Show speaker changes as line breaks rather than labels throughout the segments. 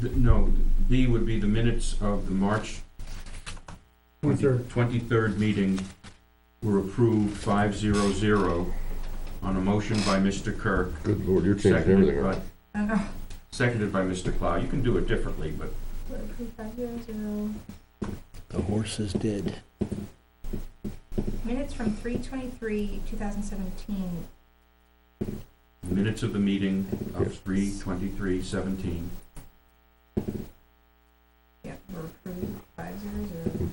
th- no, B would be the minutes of the March
Twenty-third.
Twenty-third meeting were approved five zero zero on a motion by Mr. Kirk.
Good lord, you're changing
Seconded
everything.
by,
up.
I know.
seconded by Mr. Plow. You can do it differently, but
We're approved five zero zero.
The horse is dead.
Minutes from three twenty-three, two thousand seventeen.
minutes of the meeting of
Yes.
three twenty-three seventeen.
Yep, we're approved five zero zero.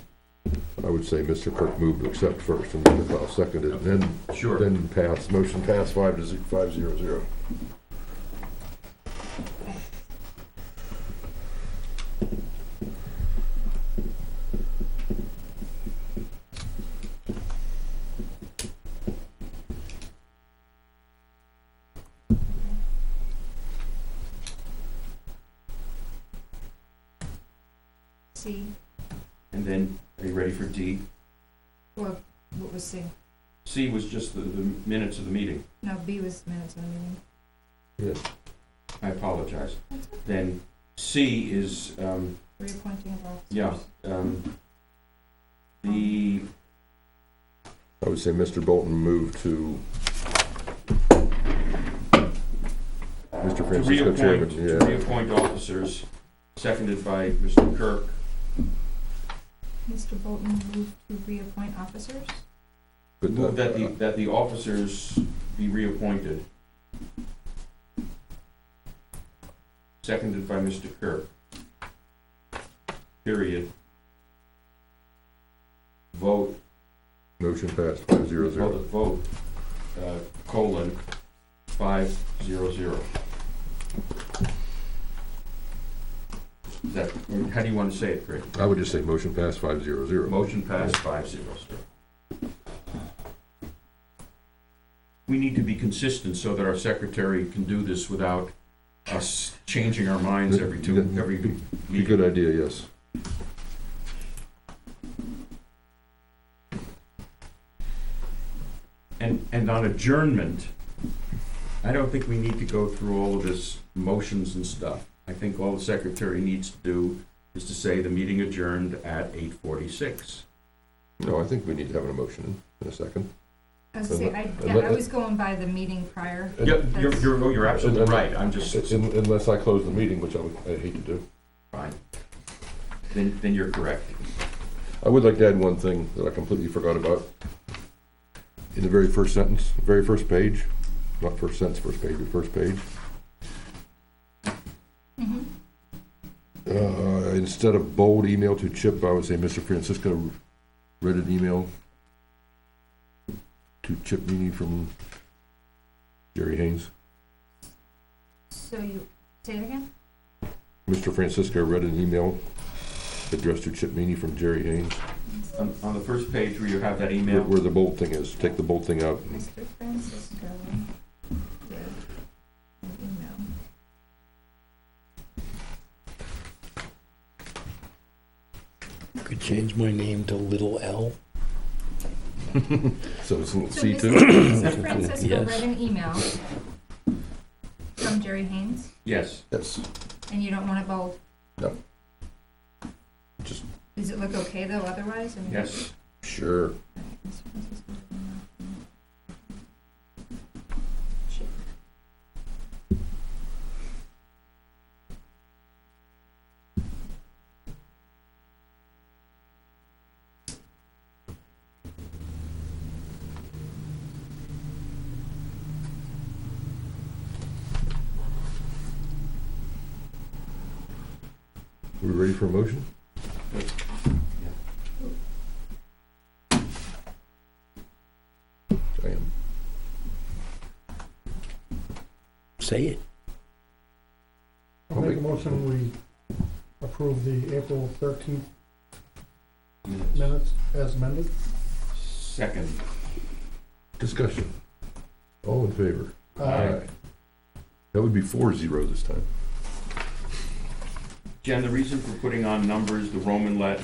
I would say Mr. Kirk moved to accept first and Mr. Plow seconded, and then,
Sure.
then pass, motion passed five to zero, five zero zero.
C,
And then, are you ready for D?
well, what was C?
C was just the, the minutes of the meeting.
No, B was minutes of the meeting.
Yes,
I apologize. Then C is, um,
Reappointing of officers.
Yeah. um, the,
I would say Mr. Bolton moved to Mr.
to
Francisco
reappoint,
Chairman,
to
yeah.
reappoint officers, seconded by Mr. Kirk.
Mr. Bolton moved to reappoint officers.
But
Move that the,
uh,
that the officers be reappointed. Seconded by Mr. Kirk. Period. Vote,
Motion passed five zero
vote,
zero.
vote, uh, colon, five, zero, zero. Is that, how do you want to say it, Craig?
I would just say motion passed five zero zero.
Motion passed five zero zero. We need to be consistent so that our secretary can do this without us changing our minds every two, every
Be a
meeting.
good idea, yes.
And, and on adjournment, I don't think we need to go through all of this motions and stuff. I think all the secretary needs to do is to say the meeting adjourned at eight forty-six.
No, I think we need to have an emotion in a second.
I was saying, I, yeah, I was going by the meeting prior.
Yep, you're, you're, oh, you're absolutely right, I'm just,
Un- Unless I close the meeting, which I would, I hate to do.
fine. Then, then you're correct.
I would like to add one thing that I completely forgot about. In the very first sentence, very first page, not first sentence, first page, but first page,
Mhm.
uh, instead of bold email to Chip, I would say Mr. Francisco read an email to Chip Meany from Jerry Haynes.
So you, say it again?
Mr. Francisco read an email addressed to Chip Meany from Jerry Haynes,
On, on the first page where you have that
where-
email,
where the bold thing is, take the bold thing out.
Mr. Francisco did an email.
Could change my name to Little L.
So it's a little
So
C
Mr.
two.
Mr. Francisco
Yes.
read an email from Jerry Haynes,
yes,
Yes,
and you don't want it bold?
No. Just-
Does it look okay though otherwise? I mean-
yes.
sure.
Mr. Francisco read an email
We ready for a motion? I am.
Say it.
I'll make a motion, we approve the April thirteenth minutes as amended.
Second,
Discussion. All in favor?
Aye.
That would be four zero this time.
Jen, the reason for putting on numbers, the Roman let,